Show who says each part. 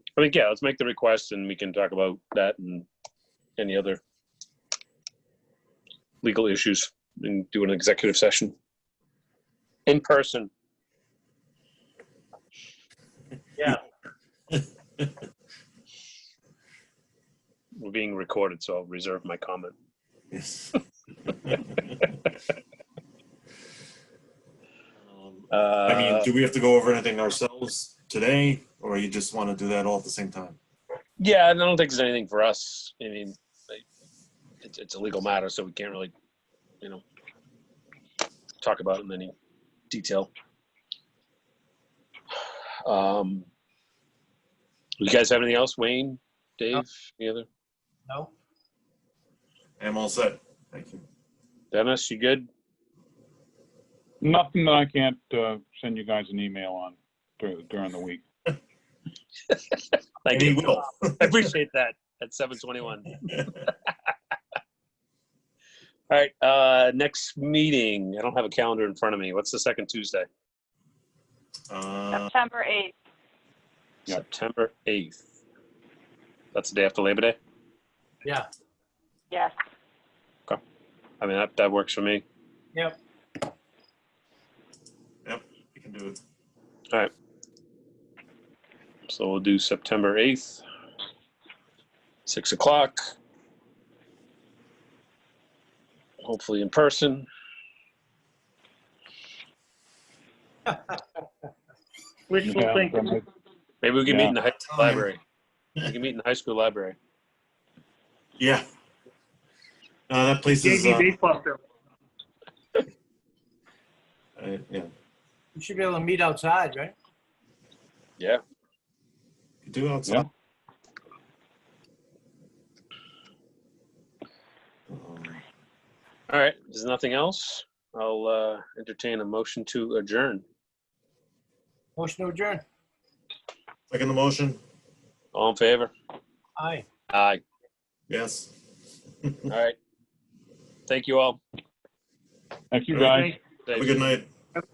Speaker 1: I think, yeah, let's make the request and we can talk about that and any other legal issues and do an executive session in person.
Speaker 2: Yeah.
Speaker 1: We're being recorded, so I'll reserve my comment.
Speaker 2: Um, I mean,
Speaker 1: Uh,
Speaker 2: do we have to go over anything ourselves today, or you just want to do that all at the same time?
Speaker 1: Yeah, and I don't think there's anything for us. I mean, like, it's, it's a legal matter, so we can't really, you know, talk about it in any detail. Um, you guys have anything else, Wayne, Dave, any other?
Speaker 3: No?
Speaker 2: I'm all set. Thank you.
Speaker 1: Dennis, you good?
Speaker 4: Nothing that I can't uh, send you guys an email on dur- during the week.
Speaker 1: Thank
Speaker 2: And he will.
Speaker 1: I appreciate that at seven twenty-one. All right, uh, next meeting. I don't have a calendar in front of me. What's the second Tuesday?
Speaker 2: Uh,
Speaker 5: September 8th.
Speaker 4: Yeah.
Speaker 1: September eighth. That's the day after Labor Day.
Speaker 3: Yeah.
Speaker 5: Yes.
Speaker 1: I mean, that, that works for me.
Speaker 3: Yep.
Speaker 2: we can do it.
Speaker 1: So we'll do September 8th, 6 o'clock. Hopefully in person.
Speaker 4: Wishful thinking.
Speaker 1: Maybe we can meet
Speaker 4: Yeah.
Speaker 1: in the high school library. We can meet in the high school library.
Speaker 2: Yeah. No, that place is. Uh, uh, yeah.
Speaker 3: We should be able to meet outside, right?
Speaker 1: Yeah.
Speaker 2: You do outside. Um,
Speaker 1: All right. If there's nothing else, I'll uh, entertain a motion to adjourn.
Speaker 3: Motion to adjourn.
Speaker 2: Second the motion?
Speaker 1: All in favor?
Speaker 3: Aye.
Speaker 1: Aye.
Speaker 2: Yes.
Speaker 1: All right. Thank you all.
Speaker 4: Thank you, guys.
Speaker 2: Have a good night.